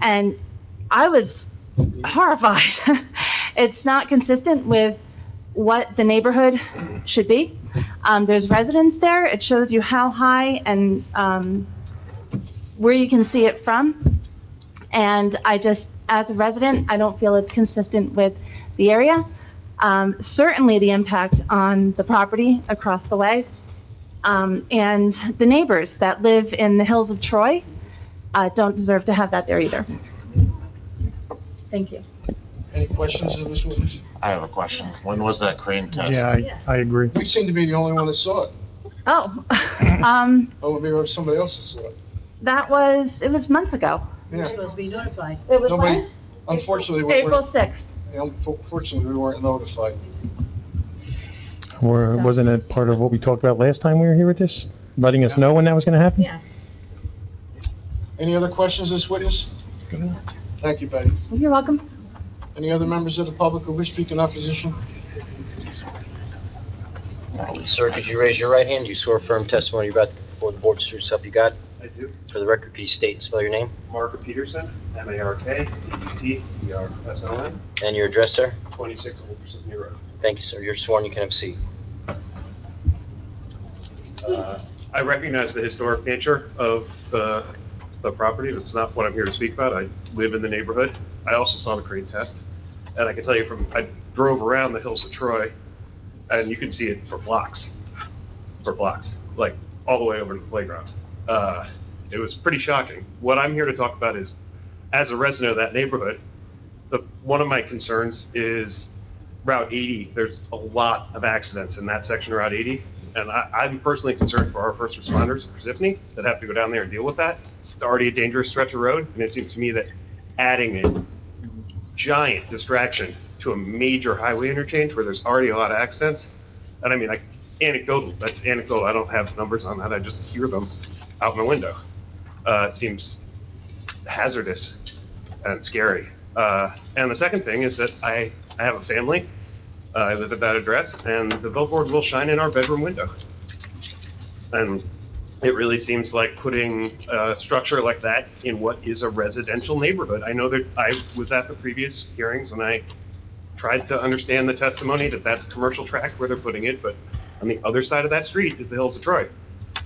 and I was horrified. It's not consistent with what the neighborhood should be. Um, there's residents there, it shows you how high and, um, where you can see it from. And I just, as a resident, I don't feel it's consistent with the area. Um, certainly the impact on the property across the way, um, and the neighbors that live in the hills of Troy, uh, don't deserve to have that there either. Thank you. Any questions of this witness? I have a question. When was that crane test? Yeah, I, I agree. We seem to be the only one that saw it, Oh, um, or maybe somebody else that saw it. that was, it was months ago. You're Yeah, supposed to be notified. It was Nobody- when? unfortunately, we April weren't, 6th. unfortunately, we weren't notified. Or wasn't it part of what we talked about last time we were here with this? Letting us know when that was gonna happen? Yeah. Any other questions of this witness? Thank you, Betty. You're welcome. Any other members of the public who wish to speak in opposition? Sir, could you raise your right hand? Do you swear firm testimony you're about to give before the board is true self you got? I do. For the record, could you state and spell your name Mark Peterson, E M-A-R-K-E-T-E-R-S-O-N, and your address, sir? 26 Old Pursuit Road. Thank you, sir. You're sworn. You can have a seat. Uh, I recognize the historic nature of the the property. That's not what I'm here to speak about. I live in the neighborhood. I also saw the crane test. And I can tell you from, I drove around the hills of Troy, and you can see it for blocks, for blocks, like all the way over to the playground. Uh, It was pretty shocking. What I'm here to talk about is, as a resident of that neighborhood, the, one of my concerns is Route 80, there's a lot of accidents in that section of Route 80. And I, I'm personally concerned for our first responders in Parsippany that have to go down there and deal with that. It's already a dangerous stretch of road, and it seems to me that adding a giant distraction to a major highway interchange where there's already a lot of accidents, and I mean, like anecdotal, that's anecdotal, I don't have numbers on that, I just hear them out my window. Uh, it seems hazardous and scary. Uh, and the second thing is that I, I have a family, uh, I live at that address, and the billboard will shine in our bedroom window. And it really seems like putting a structure like that in what is a residential neighborhood. I know that I was at the previous hearings and I tried to understand the testimony that that's a commercial tract where they're putting it, but on the other side of that street is the hills of Troy.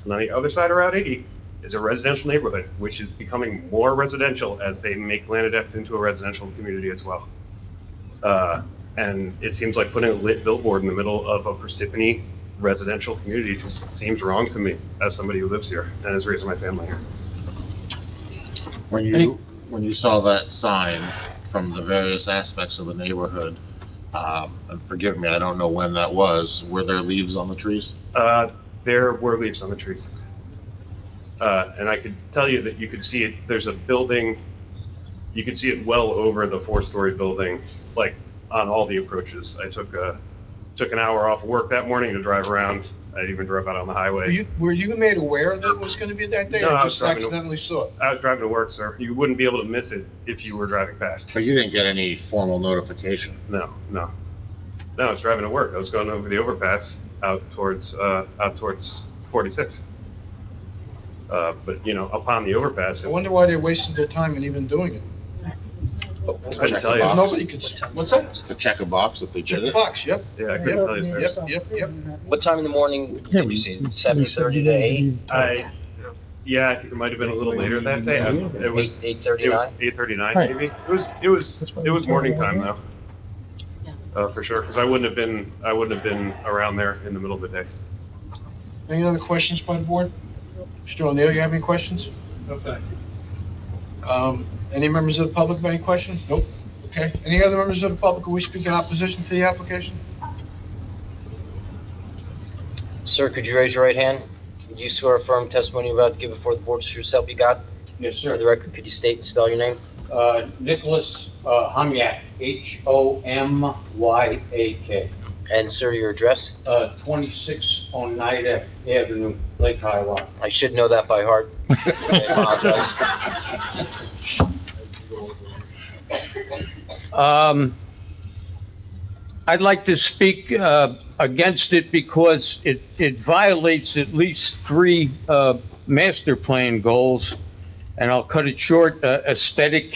And on the other side of Route 80 is a residential neighborhood, which is becoming more residential as they make Lanedex into a residential community as well. Uh, And it seems like putting a lit billboard in the middle of a Parsippany residential community just seems wrong to me as somebody who lives here and is raising my family here. When you, when you saw that sign from the various aspects of the neighborhood, um, and forgive me, I don't know when that was, were there leaves on the trees? Uh, There were leaves on the trees. Uh, And I could tell you that you could see it, there's a building, you could see it well over the four-story building, like on all the approaches. I took, uh, took an hour off work that morning to drive around. I even drove out on the Were highway. you, were you made aware that it was gonna be that day, No, or I was just driving. accidentally saw it? I was driving to work, sir. You wouldn't be able to miss it if you were driving past. But you didn't get any formal notification. No, no. No, I was driving to work. I was going over the overpass out towards, uh, out towards 46. Uh, But, you know, upon the overpass, I it wonder why they wasted their time in even doing it. I can tell you. Box. Nobody could, s- what's that? To check a box that they Check did the it? box, yep, Yeah, I couldn't tell you, sir. Yep, yep, yep. What time in the morning did you see? Seven thirty to eight? I, yeah, I think it might have been a little later that day. I- It was, Eight, eight it was thirty-nine? 8:39 Right. maybe. It was, it was, it was morning time though. Uh, for sure, because I wouldn't have been, I wouldn't have been around there in the middle of the day. Any other questions by the board? Mr. O'Neill, you have any questions? No, thank you. Um, any members of the public have any questions? Nope. Okay. Any other members of the public who wish to speak in opposition to the application? Sir, could you raise your right hand? Do you swear firm testimony you're about to give before the board is true self you got? Yes, For sir. the record, could you state and spell your name Uh, Nicholas uh, Homyak, H-O-M-Y-A-K, and, sir, your address? uh, 26 Oneida Avenue, Lake Hiawatha. I should know that by heart. I apologize. Um, I'd like to speak uh, against it because it, it violates at least three uh, master plan goals, and I'll cut it short, uh, aesthetic